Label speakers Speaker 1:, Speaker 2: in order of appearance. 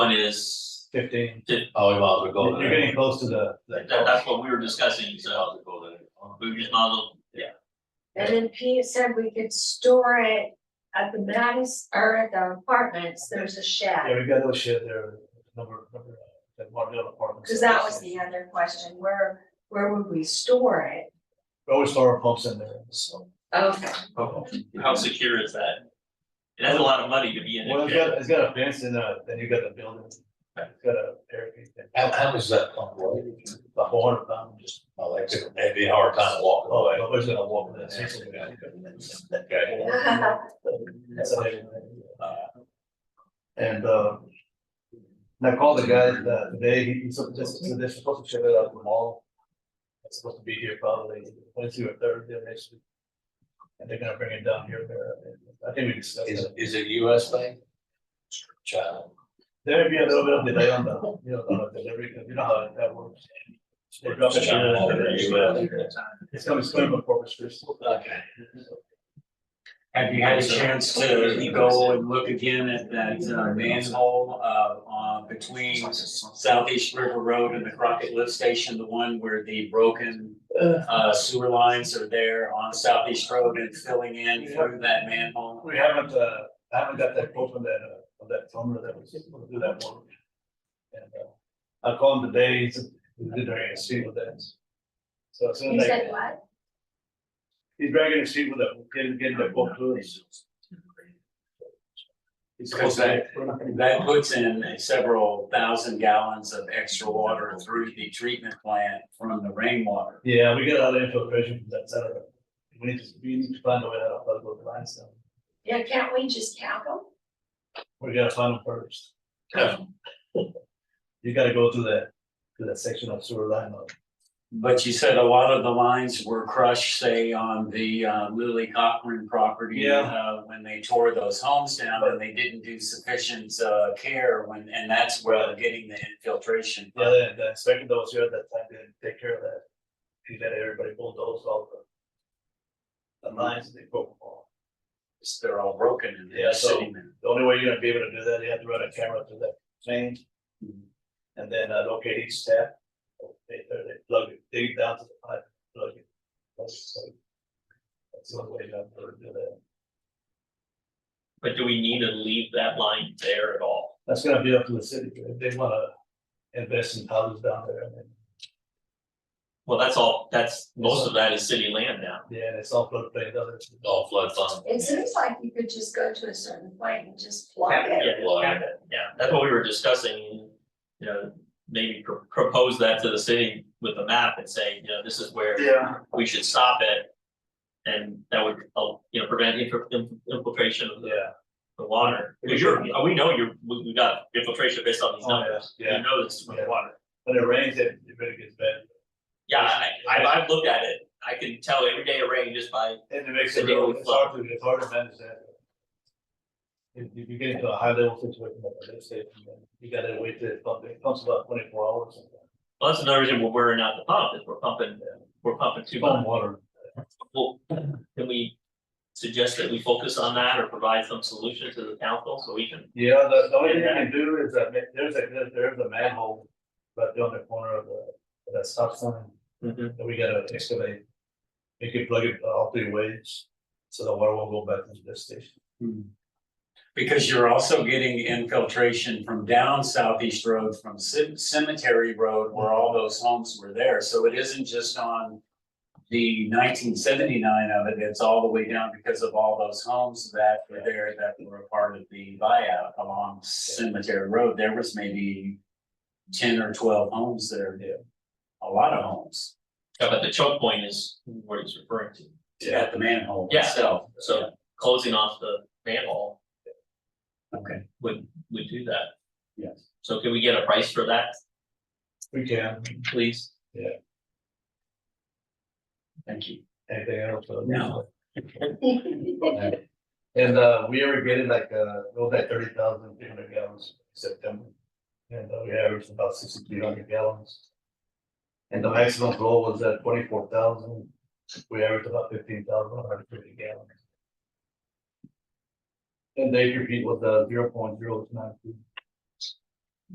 Speaker 1: is,
Speaker 2: fifteen.
Speaker 3: Oh, we might as well go
Speaker 2: You're
Speaker 3: there.
Speaker 2: getting close to the.
Speaker 1: uh, that, that's what we were discussing, so
Speaker 3: Oh,
Speaker 1: we just might as well, yeah,
Speaker 4: And then Pete said we could store it at the Madis, or at the apartments, there's a
Speaker 2: Yeah,
Speaker 4: shed.
Speaker 2: we got those shit there, number, number, uh, that Martindale apartments.
Speaker 4: Cause that was the other question, where, where would we store it?
Speaker 2: We Always throw our pumps in there, so.
Speaker 4: Okay,
Speaker 1: how, how secure is that? And that's a lot of money to be in.
Speaker 2: Well,
Speaker 1: a
Speaker 2: it's
Speaker 1: shed.
Speaker 2: got, it's got a fence and uh, then you got the building. It's got a barricade. thing.
Speaker 3: How, how much does that pump weigh?
Speaker 2: About four hundred pound, just.
Speaker 3: Oh, that's, that'd be a hard time to walk
Speaker 2: Oh,
Speaker 3: away.
Speaker 2: nobody's gonna walk with
Speaker 3: That's-
Speaker 2: that.
Speaker 3: Okay.
Speaker 2: That's a big thing. And, uh. And I called the guy, uh, today, he, he's, sup- just- so they're supposed to ship it out to the mall. It's supposed to be here probably Wednesday or Thursday next week. And they're gonna bring it down here, there, I think we discussed
Speaker 3: Is,
Speaker 2: that.
Speaker 3: is it US thing? China.
Speaker 2: There may be a little bit of delay on the, you know, on the delivery, 'cause you know how that works. They drop it
Speaker 3: China all over
Speaker 2: here.
Speaker 3: the US.
Speaker 2: It's coming soon before it's Christmas.
Speaker 3: Okay.
Speaker 5: Have you had a chance to go and look again at that uh, manhole uh on between Southeast River Road and the Crockett Lift Station, the one where the broken uh sewer lines are there on Southeast Road and filling in through that manhole?
Speaker 2: We haven't, uh, I haven't got that quote on that, uh, on that plumber that was able to do that one. And, uh, I called him today, he said, he did a regular seat with that. So as soon
Speaker 4: you
Speaker 2: as
Speaker 4: said
Speaker 2: I,
Speaker 4: what?
Speaker 2: he's dragging a seat with that, getting, getting that quote through. He's
Speaker 5: Because
Speaker 2: supposed
Speaker 5: that-
Speaker 2: to, we're not gonna-
Speaker 5: That puts in several thousand gallons of extra water through the treatment plant from the rainwater.
Speaker 2: yeah, we get out of infiltration from that side of it. We need to, we need to find a way out of those lines now.
Speaker 4: Yeah, can't we just count them?
Speaker 2: We gotta find them first. You gotta go through that, through that section of sewer line. uh,
Speaker 5: But you said a lot of the lines were crushed, say, on the uh, Lily Cochran property.
Speaker 2: Yeah.
Speaker 5: uh, When they tore those homes down and they didn't do sufficient uh, care when, and that's where they're getting the infiltration.
Speaker 2: Yeah, the, the inspector that was here at that time didn't take care of that. He let everybody bulldoze all the. The lines that they broke all.
Speaker 5: It's- They're all broken and
Speaker 2: Yeah,
Speaker 5: they're
Speaker 2: so-
Speaker 5: sitting there.
Speaker 2: The only way you're gonna be able to do that, you have to run a camera through that thing. Mm-hmm. And then uh, locate each step. They, they they plug it, dig down to the pipe, plug it. That's so- that's the only way you have to do that.
Speaker 1: But do we need to leave that line there at all?
Speaker 2: That's gonna be up to the city, if they wanna invest in houses down there, and then-
Speaker 1: Well, that's all, that's, most of that is city land now.
Speaker 2: yeah, and it's all floodplain, others.
Speaker 3: All flood fund.
Speaker 4: It seems like you could just go to a certain point and just plug
Speaker 1: Yeah,
Speaker 4: it.
Speaker 1: just have it. Yeah, that's what we were discussing, you know, maybe pro- propose that to the city with a map and say, you know, this is where
Speaker 2: Yeah.
Speaker 1: we should stop it. And that would, uh, you know, prevent infil- inf- infiltration of the,
Speaker 2: Yeah.
Speaker 1: the water. Because you're, we know you're, we, we got infiltration based on these
Speaker 2: Oh,
Speaker 1: numbers.
Speaker 2: yeah, yeah.
Speaker 1: You know this with
Speaker 2: Yeah.
Speaker 1: water.
Speaker 2: When it rains, it it really gets bad.
Speaker 1: Yeah, I, I, I've looked at it. I can tell every day it rained just by,
Speaker 2: And it makes it
Speaker 1: The daily
Speaker 2: real, it's hard to, it's hard to manage that. If if you get into a high level situation like this, then you gotta wait till it pumps, it pumps about twenty four hours.
Speaker 1: well, that's another reason we're wearing out the pump is we're pumping, we're pumping too much.
Speaker 2: Pump water.
Speaker 1: Well, can we suggest that we focus on that or provide some solution to the council so we can?
Speaker 2: Yeah, the, the only thing you can do is that ma- there's a, there's- there's a manhole, but on the corner of the, of that stop sign, that we gotta excavate. You can plug it uh, all three ways, so the water won't go back into the station.
Speaker 5: Because you're also getting infiltration from down Southeast Road, from Cem- Cemetery Road, where all those homes were there. So it isn't just on the nineteen seventy-nine of it, it's all the way down because of all those homes that were there that were a part of the buyout along Cemetery Road. There was maybe ten or twelve homes there.
Speaker 2: Yeah.
Speaker 5: A lot of homes
Speaker 1: Yeah, but the choke point is what he's referring to.
Speaker 2: Yeah.
Speaker 5: at the manhole
Speaker 1: Yeah.
Speaker 5: itself.
Speaker 1: So closing off the manhole
Speaker 5: Okay,
Speaker 1: would, would do that.
Speaker 5: yes.
Speaker 1: So can we get a price for that,
Speaker 2: We can,
Speaker 1: please?
Speaker 5: Thank you.
Speaker 2: anything else? uh,
Speaker 5: No.
Speaker 2: And uh, we ever get it like uh, it was like thirty thousand three hundred gallons in September. And uh, we averaged about sixty three hundred gallons. And the maximum flow was at twenty four thousand, we averaged about fifteen thousand one hundred fifty gallons. And they repeat was uh zero point zero nine two.